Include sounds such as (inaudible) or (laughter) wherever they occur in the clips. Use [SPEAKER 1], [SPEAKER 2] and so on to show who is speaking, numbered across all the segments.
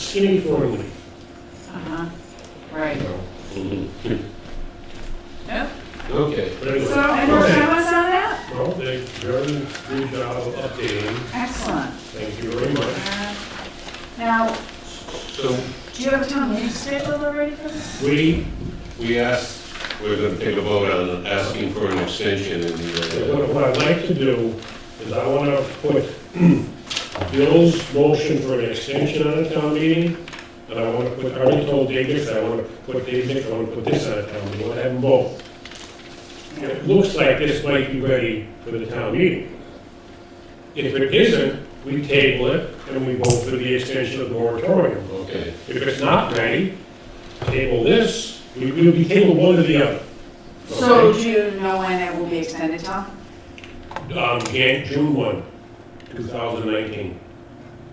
[SPEAKER 1] Informally.
[SPEAKER 2] Uh-huh, right. Yep.
[SPEAKER 3] Okay.
[SPEAKER 1] But anyway,
[SPEAKER 2] So, any more
[SPEAKER 1] okay.
[SPEAKER 2] comments on that?
[SPEAKER 1] Well, they, they're doing a good job of updating,
[SPEAKER 2] Excellent.
[SPEAKER 1] thank you very much.
[SPEAKER 2] Uh, Now,
[SPEAKER 3] So
[SPEAKER 2] do you have a town meeting scheduled already for this?
[SPEAKER 1] We,
[SPEAKER 3] we asked, we're going to take a vote on asking for an extension in the, uh,
[SPEAKER 1] what what I'd like to do is I want to put (clears throat) Bill's motion for an extension on a town meeting, and I want to put, I already told David, I want to put David, I want to put this on a town meeting, I want to have them both. And It looks like this might be ready for the town meeting. If it isn't, we table it, and we vote for the extension of the moratorium.
[SPEAKER 3] uh, okay.
[SPEAKER 1] If it's not ready, table this, we will be table one or the other.
[SPEAKER 2] So
[SPEAKER 1] Okay?
[SPEAKER 2] do you know when it will be extended, Tom?
[SPEAKER 1] Um, Jan- June one, two thousand nineteen,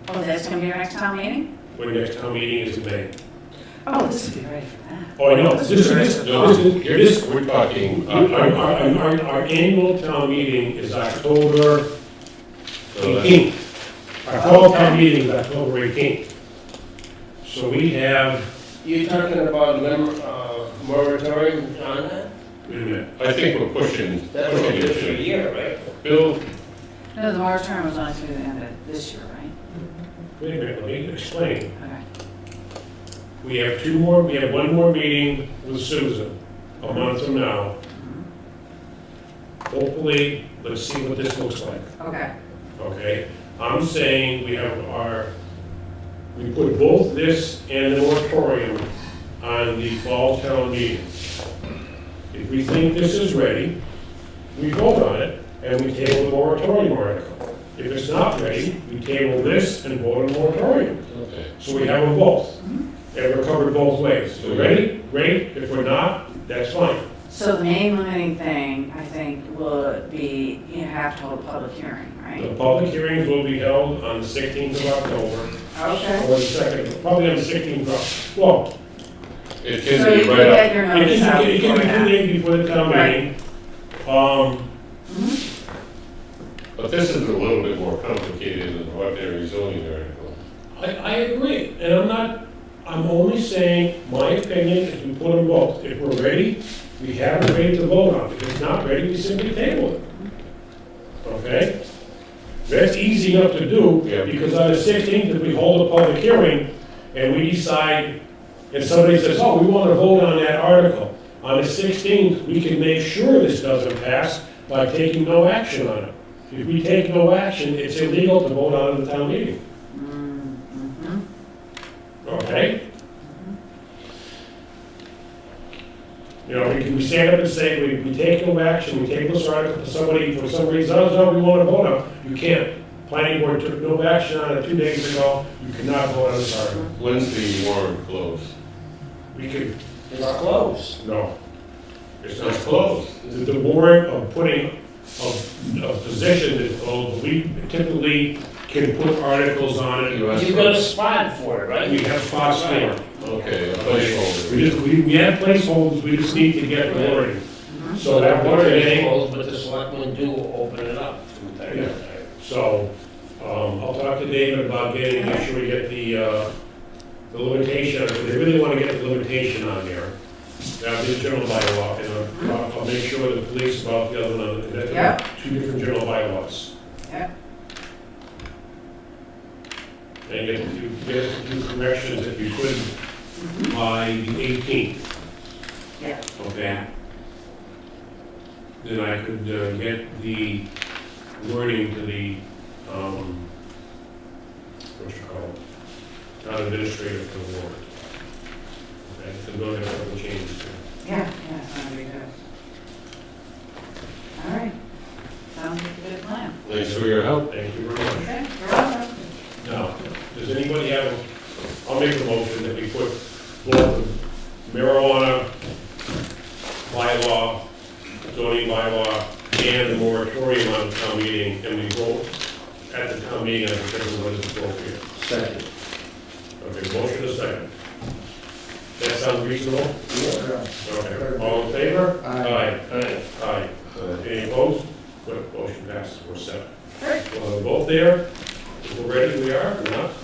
[SPEAKER 2] Oh, that's gonna be your next town meeting?
[SPEAKER 1] when next town meeting is in May.
[SPEAKER 2] Oh, this would be ready for that.
[SPEAKER 1] Oh, I know, this is, this,
[SPEAKER 3] No,
[SPEAKER 1] this,
[SPEAKER 3] here's-
[SPEAKER 1] this,
[SPEAKER 3] we're talking, uh,
[SPEAKER 1] our, our,
[SPEAKER 3] uh,
[SPEAKER 1] our, our annual town meeting is October
[SPEAKER 3] so that's-
[SPEAKER 1] eighteenth. Our fall town meeting is October eighteenth. So we have,
[SPEAKER 4] You're talking about lim- uh, moratorium on that?
[SPEAKER 1] wait a minute,
[SPEAKER 3] I think we're pushing,
[SPEAKER 4] That's what
[SPEAKER 3] pushing
[SPEAKER 4] it is for a
[SPEAKER 3] it.
[SPEAKER 4] year, right?
[SPEAKER 3] Bill,
[SPEAKER 2] No, the moratorium was only through the end of this year, right?
[SPEAKER 1] wait a minute, let me explain.
[SPEAKER 2] Okay.
[SPEAKER 1] We have two more, we have one more meeting with Susan a month from now. Hopefully, let's see what this looks like,
[SPEAKER 2] Okay.
[SPEAKER 1] okay? I'm saying we have our, we put both this and the moratorium on the fall town meeting. If we think this is ready, we vote on it and we table the moratorium article. If it's not ready, we table this and vote on the moratorium.
[SPEAKER 3] okay,
[SPEAKER 1] So we have them both, and we're covered both ways. If we're ready, great, if we're not, that's fine.
[SPEAKER 2] So the main limiting thing, I think, will be you have to hold a public hearing,
[SPEAKER 1] The
[SPEAKER 2] right?
[SPEAKER 1] public hearings will be held on the 16th of October,
[SPEAKER 2] Okay.
[SPEAKER 1] or the second, probably on the 16th of, well,
[SPEAKER 3] it
[SPEAKER 2] So
[SPEAKER 3] can
[SPEAKER 2] you
[SPEAKER 3] be
[SPEAKER 2] can
[SPEAKER 3] right up.
[SPEAKER 2] get your
[SPEAKER 1] it
[SPEAKER 2] notice out
[SPEAKER 1] can, it can
[SPEAKER 2] before
[SPEAKER 1] be two
[SPEAKER 2] that.
[SPEAKER 1] days before the town meeting. Um,
[SPEAKER 3] But this is a little bit more complicated than the ordinary zoning article.
[SPEAKER 1] I, I agree, and I'm not, I'm only saying, my opinion is we put them both. If we're ready, we have it ready to vote on. If it's not ready, we simply table it. Okay? That's easy enough to do,
[SPEAKER 3] Yeah.
[SPEAKER 1] because on the sixteenth, if we hold a public hearing and we decide, and somebody says, oh, we want to vote on that article, on the sixteenth, we can make sure this doesn't pass by taking no action on it. If we take no action, it's illegal to vote on it at the town meeting. Okay? You know, we can we stand up and say, we, we take no action, we take this article to somebody, for some reason, oh, no, we want to vote on, you can't. Planning board took no action on it two days ago, you cannot vote on this article.
[SPEAKER 3] When's the warrant close?
[SPEAKER 1] We could,
[SPEAKER 4] It's close.
[SPEAKER 1] no. It's
[SPEAKER 3] It's
[SPEAKER 1] not
[SPEAKER 3] not
[SPEAKER 1] closed.
[SPEAKER 3] closed.
[SPEAKER 1] The, the warrant of putting, of, of position is closed, we typically can put articles on it.
[SPEAKER 3] You asked
[SPEAKER 4] You got a spot for it, right?
[SPEAKER 1] We have spots for it.
[SPEAKER 3] Okay, a placeholder.
[SPEAKER 1] We just, we, we have placeholders, we just need to get the wording. So
[SPEAKER 2] Uh-huh.
[SPEAKER 1] that
[SPEAKER 4] Water
[SPEAKER 1] wording,
[SPEAKER 4] is
[SPEAKER 1] ain't-
[SPEAKER 4] closed, but the selectmen do open it up.
[SPEAKER 1] Yeah. so, um, I'll talk to David about getting, make sure we get the, uh, the limitation, if they really wanna get the limitation on there. That'll be the general bylaw, and I'll, I'll make sure the police about the other one, and
[SPEAKER 2] Uh-huh. Yeah.
[SPEAKER 1] that's two different general bylaws.
[SPEAKER 2] Yeah.
[SPEAKER 1] And get a few, get a few corrections if you could by the eighteenth,
[SPEAKER 2] Yeah.
[SPEAKER 1] okay? then I could uh, get the wording to the, um, what you call it, town administrator for the warrant. Okay, so go ahead and have the changes.
[SPEAKER 2] Yeah, yeah, it's gonna be good. All right, sounds like a good plan.
[SPEAKER 3] Thanks for your help.
[SPEAKER 1] Thank you very much.
[SPEAKER 2] Okay, you're welcome.
[SPEAKER 1] Now, does anybody have, I'll make a motion that we put both marijuana bylaw, zoning bylaw, and the moratorium on town meeting, and we vote at the town meeting, and determine what is appropriate.
[SPEAKER 4] Second.
[SPEAKER 1] Okay, motion is second. That sounds reasonable? Okay, all in favor? Aye. Aye. Aye. Any opposed? Good, motion passes, we're set.
[SPEAKER 2] Great.
[SPEAKER 1] We'll have a vote there, if we're ready, we are, if we're not,